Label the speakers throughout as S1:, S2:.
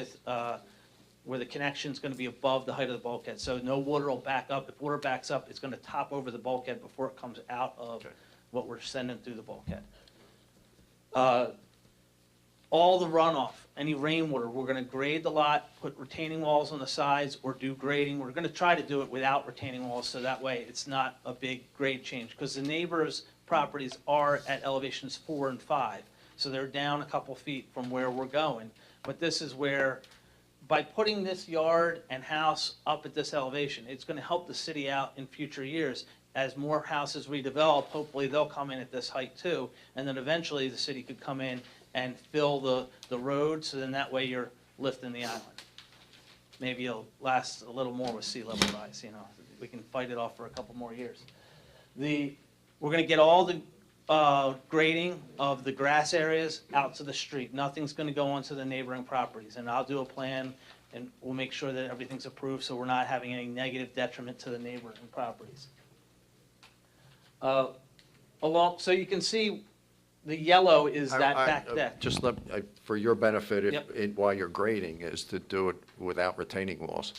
S1: with, uh, where the connection's gonna be above the height of the bulkhead, so no water will back up. If water backs up, it's gonna top over the bulkhead before it comes out of
S2: Okay.
S1: what we're sending through the bulkhead. Uh, All the runoff, any rainwater, we're gonna grade the lot, put retaining walls on the sides, or do grading. We're gonna try to do it without retaining walls, so that way it's not a big grade change, because the neighbors' properties are at elevations four and five, so they're down a couple feet from where we're going. But this is where by putting this yard and house up at this elevation, it's gonna help the city out in future years. As more houses redevelop, hopefully they'll come in at this height too, and then eventually the city could come in and fill the, the road, so then that way you're lifting the island. Maybe it'll last a little more with sea level rise, you know, we can fight it off for a couple more years. The, we're gonna get all the, uh, grading of the grass areas out to the street. Nothing's gonna go onto the neighboring properties, and I'll do a plan, and we'll make sure that everything's approved, so we're not having any negative detriment to the neighboring properties. Uh, along, so you can see, the yellow is
S2: I-
S1: that
S2: I-
S1: back
S2: uh,
S1: deck.
S2: Just let, I- for your benefit, it-
S1: Yep.
S2: it- while you're grading, is to do it without retaining walls.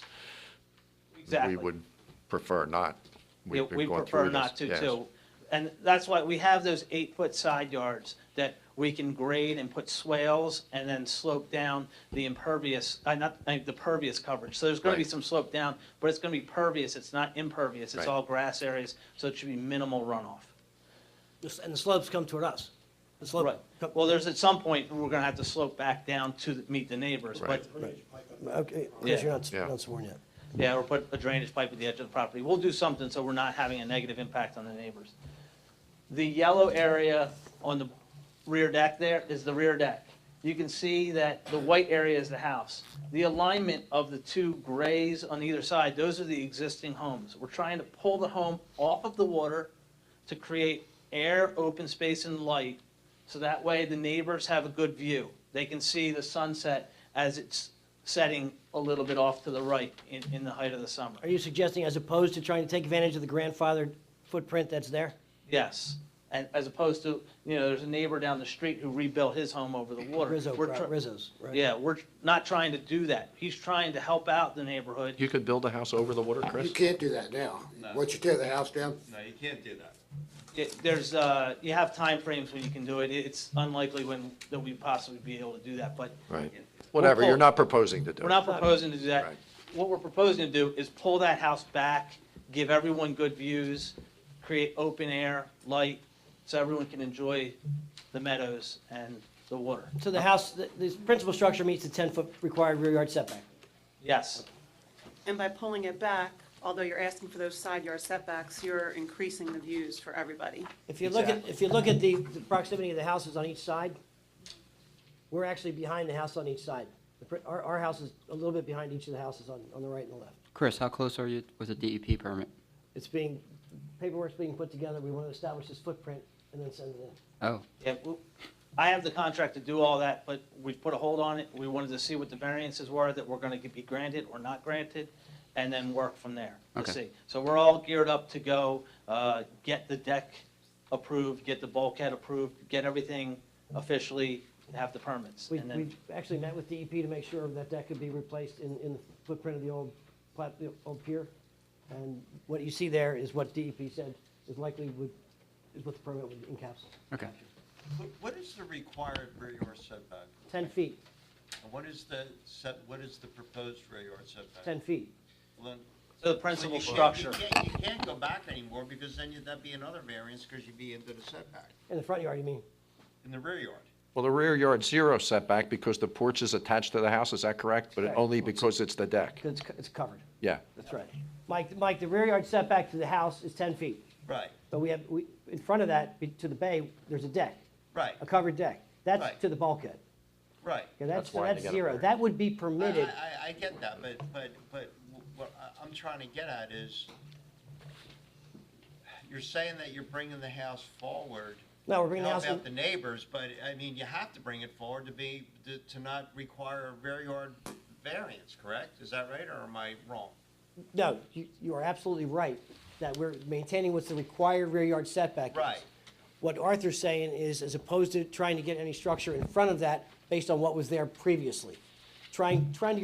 S1: Exactly.
S2: We would prefer not.
S1: Yeah,
S2: We've been
S1: we
S2: going
S1: prefer
S2: through this,
S1: not to,
S2: yes.
S1: too. And that's why we have those eight-foot side yards that we can grade and put swales and then slope down the impervious, uh, not, uh, the pervious coverage. So there's gonna be
S2: Right.
S1: some slope down, but it's gonna be pervious, it's not impervious, it's
S2: Right.
S1: all grass areas, so it should be minimal runoff.
S3: This- And the slopes come toward us. The slope.
S1: Right.
S3: come-
S1: Well, there's, at some point, we're gonna have to slope back down to the- meet the neighbors, but,
S2: Right.
S3: Okay,
S1: Yeah.
S3: because you're not,
S2: Yeah.
S3: you're not sworn yet.
S1: yeah, or put a drainage pipe at the edge of the property. We'll do something so we're not having a negative impact on the neighbors. the yellow area on the rear deck there is the rear deck. You can see that the white area is the house. The alignment of the two grays on either side, those are the existing homes. We're trying to pull the home off of the water to create air, open space, and light, so that way the neighbors have a good view. They can see the sunset as it's setting a little bit off to the right in, in the height of the summer.
S3: Are you suggesting as opposed to trying to take advantage of the grandfathered footprint that's there?
S1: Yes, and as opposed to, you know, there's a neighbor down the street who rebuilt his home over the water.
S3: Rizzo,
S1: We're tr-
S3: pro- Rizzo's, right?
S1: Yeah, we're not trying to do that. He's trying to help out the neighborhood.
S2: You could build a house over the water,
S4: You
S2: Chris?
S4: can't do that now.
S5: No.
S4: Once you tear the house down,
S5: No, you can't do that.
S1: It- There's, uh, you have timeframes when you can do it. It's unlikely when, that we possibly be able to do that, but
S2: Right. Whatever, you're not proposing to do it.
S1: We're not proposing to do that.
S2: Right.
S1: What we're proposing to do is pull that house back, give everyone good views, create open air, light, so everyone can enjoy the meadows and the water.
S3: So the house, the, the principal structure meets the ten-foot required rear yard setback.
S1: Yes.
S6: And by pulling it back, although you're asking for those side yard setbacks, you're increasing the views for everybody.
S3: If you look at,
S1: Exactly.
S3: if you look at the, the proximity of the houses on each side, we're actually behind the house on each side. The pr- Our, our house is a little bit behind each of the houses on, on the right and the left.
S7: Chris, how close are you with a DEP E permit?
S3: It's being, paperwork's being put together, we want to establish this footprint and then send it in.
S7: Oh,
S1: Yeah, w- I have the contract to do all that, but we put a hold on it. We wanted to see what the variances were that were gonna be granted or not granted, and then work from there to
S7: Okay.
S1: see. So we're all geared up to go, uh, get the deck approved, get the bulkhead approved, get everything officially, have the permits.
S3: We,
S1: And
S3: we
S1: then,
S3: actually met with DEP to make sure that that could be replaced in, in the footprint of the old plat, the old pier. And what you see there is what DEP said is likely would, is what the permit would encapsulate,
S7: okay.
S5: What- What is the required rear yard setback?
S3: ten feet,
S5: And what is the set, what is the proposed rear yard setback?
S3: ten feet.
S5: Lynn?
S1: so the
S5: So you
S1: principal
S5: can't- you
S1: structure,
S5: can't- You can't go back anymore because then you'd, that'd be another variance because you'd be into the setback
S3: In the front yard, you mean?
S5: in the rear yard.
S2: Well, the rear yard zero setback because the porch is attached to the house, is that correct? But
S3: Correct.
S2: only because it's the deck.
S3: 'Cause it's, co- it's covered.
S2: Yeah.
S3: That's right. Mike, Mike, the rear yard setback to the house is ten feet,
S5: Right,
S3: but we have, we, in front of that, be- to the bay, there's a deck,
S5: right,
S3: a covered deck. That's
S5: Right.
S3: to the bulkhead.
S5: right.
S3: Okay,
S2: That's
S3: that's, so
S2: why they
S3: that's
S2: got it
S3: zero.
S2: there.
S3: That would be
S5: I,
S3: permitted.
S5: I, I get that, but, but, but what I- I'm trying to get at is you're saying that you're bringing the house forward
S3: No, we're bringing the
S5: help
S3: house. in-
S5: out the neighbors, but, I mean, you have to bring it forward to be, to- to not require a rear yard variance, correct? Is that right, or am I wrong?
S3: No, you, you are absolutely right, that we're maintaining what's the required rear yard setback. is.
S5: Right.
S3: What Arthur's saying is, as opposed to trying to get any structure in front of that, based on what was there previously. trying, trying to